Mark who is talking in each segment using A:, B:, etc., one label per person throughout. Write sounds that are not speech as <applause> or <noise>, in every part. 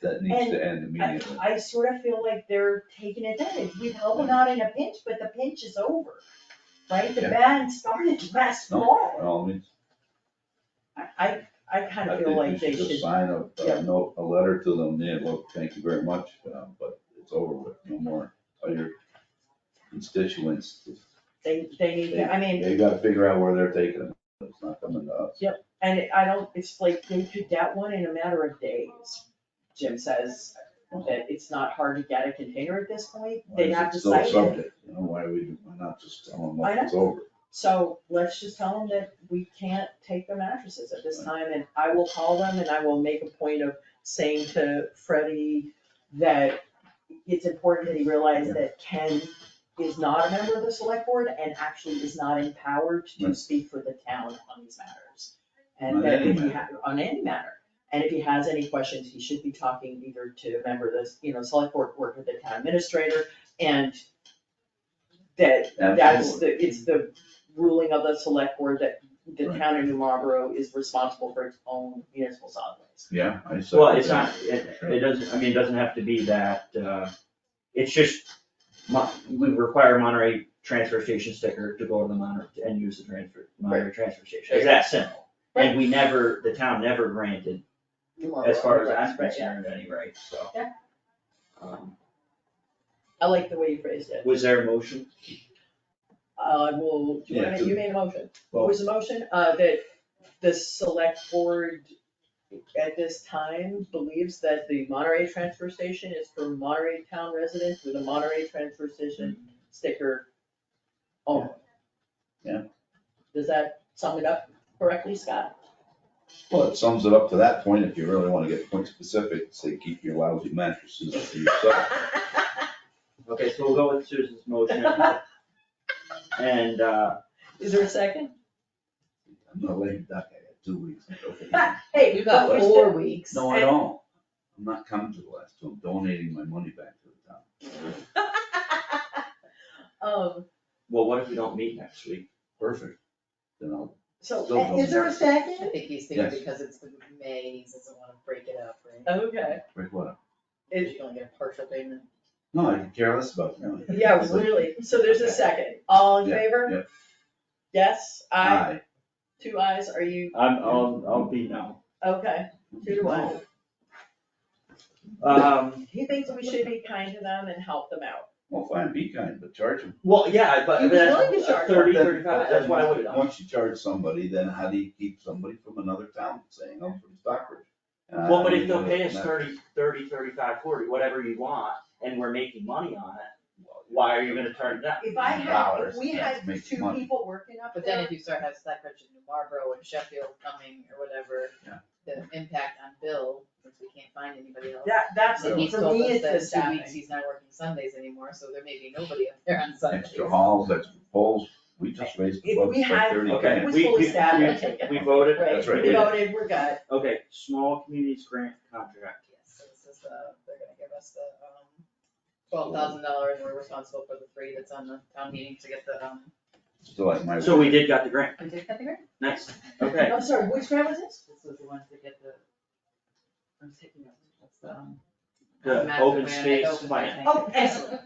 A: that needs to end
B: I,
A: immediately.
B: I sort of feel like they're taking advantage, we've helped them out in a pinch, but the pinch is over, right? The
A: Yeah.
B: ban started last
A: No,
B: fall,
A: No, I mean,
B: I, I, I kind
A: I
B: of feel like
A: think
B: they
A: we should
B: should,
A: just sign a,
B: yeah.
A: a note, a letter to them, yeah, look, thank you very much, um, but it's over with, no more, tell your constituents,
B: they, they need, to- I mean,
A: they gotta figure out where they're taking it, it's not coming to us.
B: and it- I don't, it's like, they did that one in a matter of days. Jim says that it's not hard to get a container at this point,
A: Why
B: they'd
A: is
B: have
A: it
B: to
A: still
B: cite it.
A: subject? You know, why we, why not just tell them, look,
B: I know.
A: it's over,
B: So let's just tell them that we can't take their mattresses at this time, and I will call them and I will make a point of saying to Freddie that it's important that he realize that Ken is not a member of the select board and actually is not empowered to
A: Right.
B: speak for the town on these matters.
A: On
B: And that
A: any
B: if he ha- on any matter, and if he has any questions, he should be talking either to a member of the, you know, select board or to the town administrator and that that's
A: Absolutely.
B: the, it's the ruling of the select board that the
A: Right.
B: town of New Marlboro is responsible for its own municipal solid waste.
A: yeah, I said.
C: Well, it's not, it, it doesn't, I mean, it doesn't have to be that, uh, it's just, Mon- we require Monterey transfer station sticker to go to the Monterey and use the transfer, Monterey transfer station, it's that simple. And we never, the town never granted,
B: New Marlboro,
C: as far as
B: Oh, right,
C: I'm
B: right, yeah.
C: concerned, any rights, so.
B: Yeah.
C: Um,
B: I like the way you phrased it.
C: Was there a motion?
B: Uh, well, do you
A: Yeah,
B: wanna,
A: to-
B: you made a motion. What
A: Well-
B: was the motion? Uh, that the select board at this time believes that the Monterey transfer station is for Monterey town residents with a Monterey transfer station sticker only.
A: Yeah.
B: Does that sum it up correctly, Scott?
A: Well, it sums it up to that point, if you really wanna get point specific, say, keep your lousy mattresses to yourself.
C: Okay, so we'll go with Susan's motion. And, uh,
B: Is there a second?
A: I'm not lame duck, I got two weeks. I'm joking.
B: <laughs> Hey,
D: You got four weeks.
A: No, I don't, I'm not coming to the last two, I'm donating my money back to the town.
B: Um,
C: well, what if we don't meet next week?
A: Perfect. Then I'll, Still
B: so, eh,
A: don't
B: is there a
D: I
B: second?
D: think he's thinking
A: Yes.
D: because it's the May, he doesn't wanna break it up, right?
B: Okay,
A: break what up?
B: It-
D: He's gonna get a partial payment.
A: No, I can care less about you.
B: <laughs> yeah, really, so there's a second, all in
A: Yeah,
B: favor?
A: yeah.
B: Yes, I,
A: Aye.
B: two ayes, are you,
C: I'm, I'll, I'll be no.
B: okay, two to one.
C: Um,
B: He thinks we should be kind to them and help them out.
A: Well, fine, be kind, but charge them.
C: Well, yeah, but
B: You
C: but that's
B: really discharge
C: thirty,
A: Then-
C: thirty-five, that's why I would,
A: Once you charge somebody, then how do you keep somebody from another town saying, I'm from Stockbridge? And I
C: well, but
A: don't
C: if they'll
A: know
C: pay us
A: that-
C: thirty, thirty, thirty-five, forty, whatever you want, and we're making money on it, why are you gonna turn it down?
B: If I had, if
A: Dollars,
B: we
A: that's
B: had
A: making
B: two
A: money.
B: people working up
D: But then
B: there,
D: if you start having Stockbridge and New Marlboro and Sheffield coming or whatever,
A: Yeah.
D: the impact on Bill, since we can't find anybody else.
B: that, that's,
D: And
B: it.
D: he's
B: for
D: told
B: me,
D: us
B: it's the
D: that in two
B: staffing.
D: weeks, he's not working Sundays anymore, so there may be nobody up there on Sundays.
A: Extra halls, extra poles, we just raised the
B: If
A: budget
B: we
A: by
B: had-
A: thirty
C: Okay,
B: It
A: grand.
B: was
C: we-
B: fully
C: we-
B: staffed,
C: we-
B: I take it.
C: We voted,
B: Right,
C: that's right,
A: we
C: we
B: we
C: did.
B: voted, we're good.
C: Okay, small communities grant contract,
D: Yes, so this is the, they're gonna give us the, um, twelve thousand dollars, we're responsible for the three that's on the town meeting to get the, um.
A: Still like my.
C: so we did got the grant,
D: We did get the grant?
C: nice, okay.
B: I'm sorry, which grant was this?
D: This was the ones that get the, I'm taking notes, that's the, um.
B: <laughs>
C: The
D: master
C: open
D: plan,
C: space
D: open
C: plan.
B: Oh, excellent.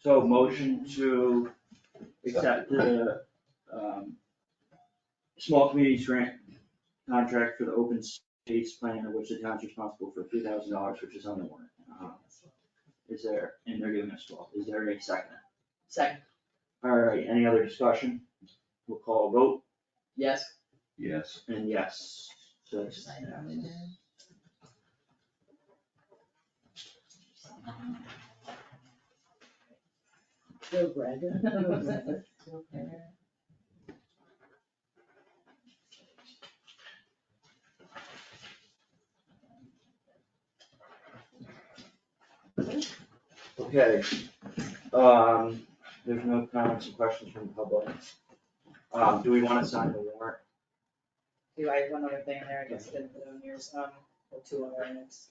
C: So motion to accept the, um, small communities grant contract for the open space plan, of which the town's responsible for three thousand dollars, which is on the warrant. Uh, Is there, and they're giving us twelve, is there a second?
B: Second,
C: All right, any other discussion? We'll call a vote,
B: yes.
A: Yes,
C: and yes, so it's unanimous.
B: Go, Greg.
D: <laughs>
C: Okay, um, there's no comments and questions from the public. Um, do we wanna sign the warrant?
D: Do I have one other thing there, I guess I didn't put on yours, um, or two other items.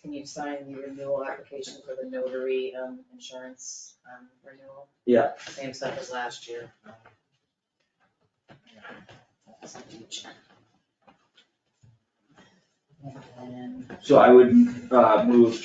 D: Can you sign the renewal application for the notary, um, insurance, um, renewal?
C: Yeah.
D: Same stuff as last year. That's huge. And
C: So I would, uh, move